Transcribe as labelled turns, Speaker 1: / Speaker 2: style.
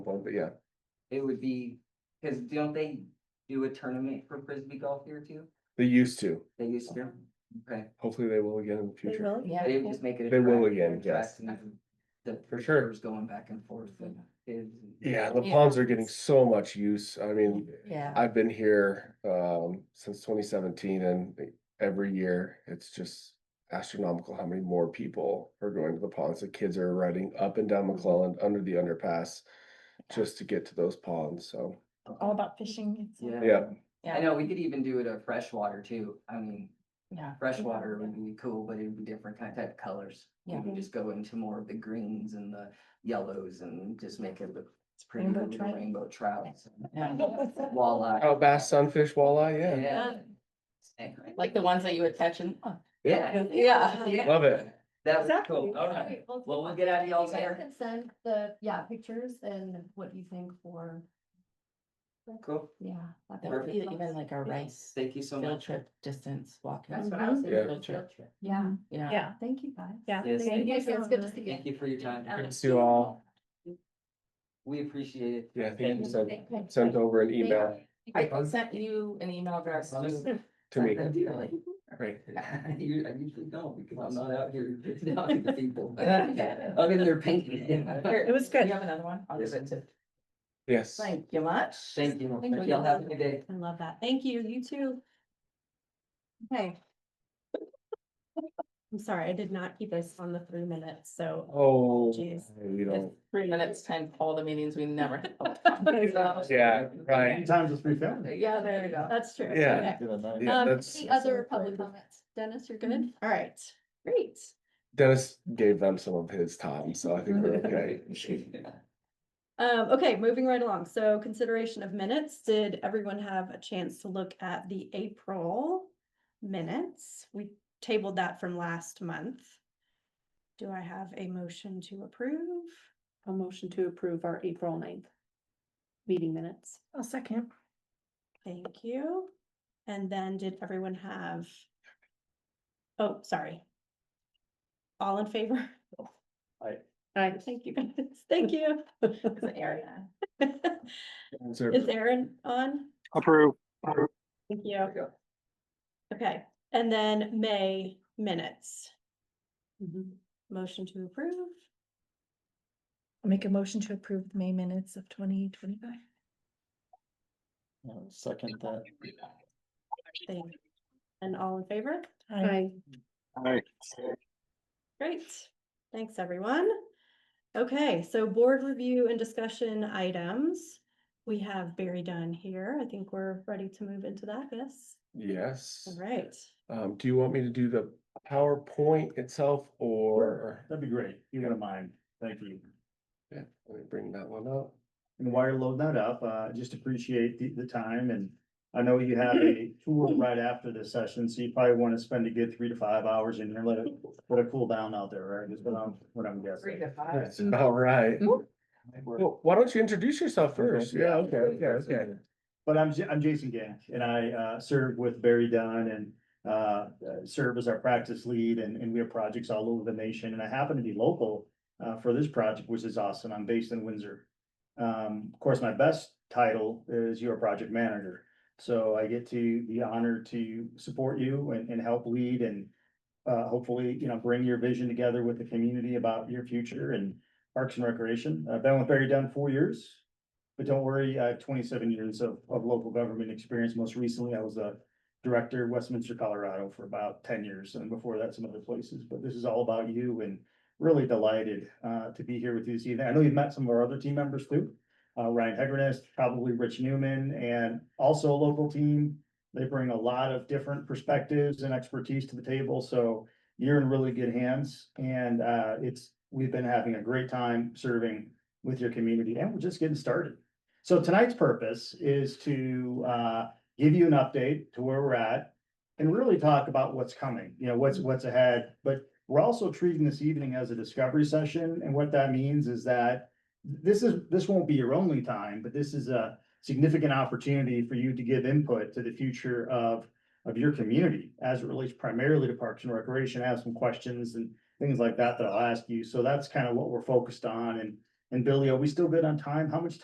Speaker 1: Well, but yeah,
Speaker 2: It would be, cause don't they do a tournament for frisbee golf here too?
Speaker 1: they used to.
Speaker 2: They used to, okay,
Speaker 1: Hopefully they will again in the
Speaker 3: They
Speaker 1: future.
Speaker 3: will, yeah.
Speaker 2: they would just make it. a
Speaker 1: They will
Speaker 2: track-
Speaker 1: again,
Speaker 2: track
Speaker 1: yes.
Speaker 2: and The
Speaker 1: For sure.
Speaker 2: was going back and forth and kids. and-
Speaker 1: Yeah, the
Speaker 3: Yeah.
Speaker 1: ponds are getting so much use. I mean,
Speaker 3: Yeah.
Speaker 1: I've been here um since twenty seventeen and every year it's just astronomical how many more people are going to the ponds. The kids are riding up and down McClellan under the underpass just to get to those ponds. So
Speaker 3: All about fishing. it's all-
Speaker 2: Yeah.
Speaker 1: Yeah.
Speaker 2: I know, we could even do it at freshwater too, I mean,
Speaker 3: Yeah.
Speaker 2: freshwater would be cool, but it would be different kind of colors. We
Speaker 3: Yeah.
Speaker 2: could just go into more of the greens and the yellows and just make it look, it's pretty,
Speaker 3: Rainbow
Speaker 2: with the
Speaker 3: trout.
Speaker 2: rainbow trouts.
Speaker 3: Yeah.
Speaker 2: Walleye.
Speaker 1: oh, bass, sunfish, walleye, yeah,
Speaker 2: Yeah.
Speaker 4: Like the ones that you would catch and, oh,
Speaker 2: Uh, Yeah.
Speaker 4: Yeah.
Speaker 1: Love it.
Speaker 2: That was
Speaker 3: Exactly.
Speaker 2: cool, alright. Well, we'll get out of y'all's
Speaker 5: You guys
Speaker 2: hair.
Speaker 5: can Send the, yeah, pictures and what you think for,
Speaker 2: Cool.
Speaker 5: yeah.
Speaker 4: that
Speaker 5: that kind of
Speaker 4: would be
Speaker 5: stuff.
Speaker 4: even like a
Speaker 5: Yeah.
Speaker 4: rice
Speaker 2: Thank you so
Speaker 4: field
Speaker 2: much.
Speaker 4: trip distance walking,
Speaker 5: That's
Speaker 4: you
Speaker 5: what I was
Speaker 4: Mhm.
Speaker 5: thinking,
Speaker 4: Yeah.
Speaker 5: field trip. Yeah,
Speaker 4: know?
Speaker 3: Yeah.
Speaker 5: thank you guys.
Speaker 3: Yeah.
Speaker 2: Yes,
Speaker 5: Thank
Speaker 2: thank
Speaker 5: you,
Speaker 2: you.
Speaker 5: it's good to see you.
Speaker 2: Thank you for your time.
Speaker 1: Thanks to you all.
Speaker 2: We appreciate it.
Speaker 1: Yeah, I think you
Speaker 2: Thank
Speaker 1: sent
Speaker 5: Thank you.
Speaker 1: sent over an email
Speaker 4: I sent you an email address to.
Speaker 1: to me.
Speaker 2: Thank you.
Speaker 1: Great.
Speaker 2: I u- I usually don't because I'm not out here talking to people. I'm in there painting.
Speaker 3: It was good.
Speaker 4: You have another one? I'll give it to.
Speaker 1: Yes.
Speaker 4: Thank you much.
Speaker 2: Thank you.
Speaker 4: Thank you.
Speaker 2: Y'all have a good day.
Speaker 5: I love that. Thank you, you too.
Speaker 3: Okay.
Speaker 5: I'm sorry, I did not keep us on the three minutes, so.
Speaker 1: Oh,
Speaker 5: Jeez.
Speaker 1: you don't.
Speaker 4: Three minutes, time, all the meetings we never. had.
Speaker 1: Yeah, right.
Speaker 6: Times it's three fifty.
Speaker 4: Yeah, there you go.
Speaker 5: That's true.
Speaker 1: Yeah. Yeah,
Speaker 5: Um,
Speaker 1: that's-
Speaker 5: any other public comments? Dennis, you're good? All right, great.
Speaker 1: Dennis gave them some of his time, so I think we're okay.
Speaker 5: Um, okay, moving right along. So consideration of minutes. Did everyone have a chance to look at the April minutes? We tabled that from last month. Do I have a motion to approve?
Speaker 7: A motion to approve our April 9th meeting minutes.
Speaker 3: I'll second.
Speaker 5: Thank you. And then did everyone have? Oh, sorry. All in favor?
Speaker 7: I,
Speaker 5: Thank you, guys. Thank you.
Speaker 4: It's an area.
Speaker 5: Is Erin on?
Speaker 6: Approve.
Speaker 5: Thank you.
Speaker 2: we go.
Speaker 5: Okay, and then May minutes.
Speaker 7: Mhm.
Speaker 5: Motion to approve.
Speaker 3: Make a motion to approve the May minutes of twenty twenty-five.
Speaker 6: Second that.
Speaker 5: Thank you. And all in favor?
Speaker 7: I,
Speaker 6: Aye.
Speaker 5: Great. Thanks, everyone. Okay, so board review and discussion items. We have Barry Dunn here. I think we're ready to move into that, yes?
Speaker 1: Yes.
Speaker 5: All right.
Speaker 1: Um, do you want me to do the PowerPoint itself or?
Speaker 6: That'd be great. You wouldn't mind. Thank you.
Speaker 1: Yeah, let me bring that one up.
Speaker 6: And while you're loading that up, uh, just appreciate the, the time and I know you have a tour right after this session, so you probably want to spend a good three to five hours in here. Let it, let it cool down out there, right? Is what I'm, what I'm
Speaker 4: Three
Speaker 6: guessing.
Speaker 4: to
Speaker 5: Uh,
Speaker 4: five.
Speaker 5: mm.
Speaker 1: All right.
Speaker 4: Mhm.
Speaker 1: Well, why don't you introduce yourself first? Yeah, okay, okay, okay.
Speaker 6: But I'm, Ja- I'm Jason Gank and I, uh, serve with Barry Dunn and, uh, serve as our practice lead and, and we have projects all over the nation. And I happen to be local, uh, for this project, which is awesome. I'm based in Windsor. Um, of course, my best title is your project manager. So I get to be honored to support you and, and help lead and, uh, hopefully, you know, bring your vision together with the community about your future and parks and recreation. I've been with Barry Dunn four years. But don't worry, I have twenty-seven years of, of local government experience. Most recently, I was a director, Westminster, Colorado for about ten years, and before that, some other places. But this is all about you and really delighted, uh, to be here with you this evening. I know you've met some of our other team members too. Uh, Ryan Hegrenest, probably Rich Newman, and also a local team. They bring a lot of different perspectives and expertise to the table, so you're in really good hands. And, uh, it's, we've been having a great time serving with your community, and we're just getting started. So tonight's purpose is to uh give you an update to where we're at. And really talk about what's coming, you know, what's what's ahead, but we're also treating this evening as a discovery session, and what that means is that. This is, this won't be your only time, but this is a significant opportunity for you to give input to the future of. Of your community as it relates primarily to Parks and Recreation, I have some questions and things like that that I'll ask you, so that's kind of what we're focused on and And Billy, are we still good on time? How much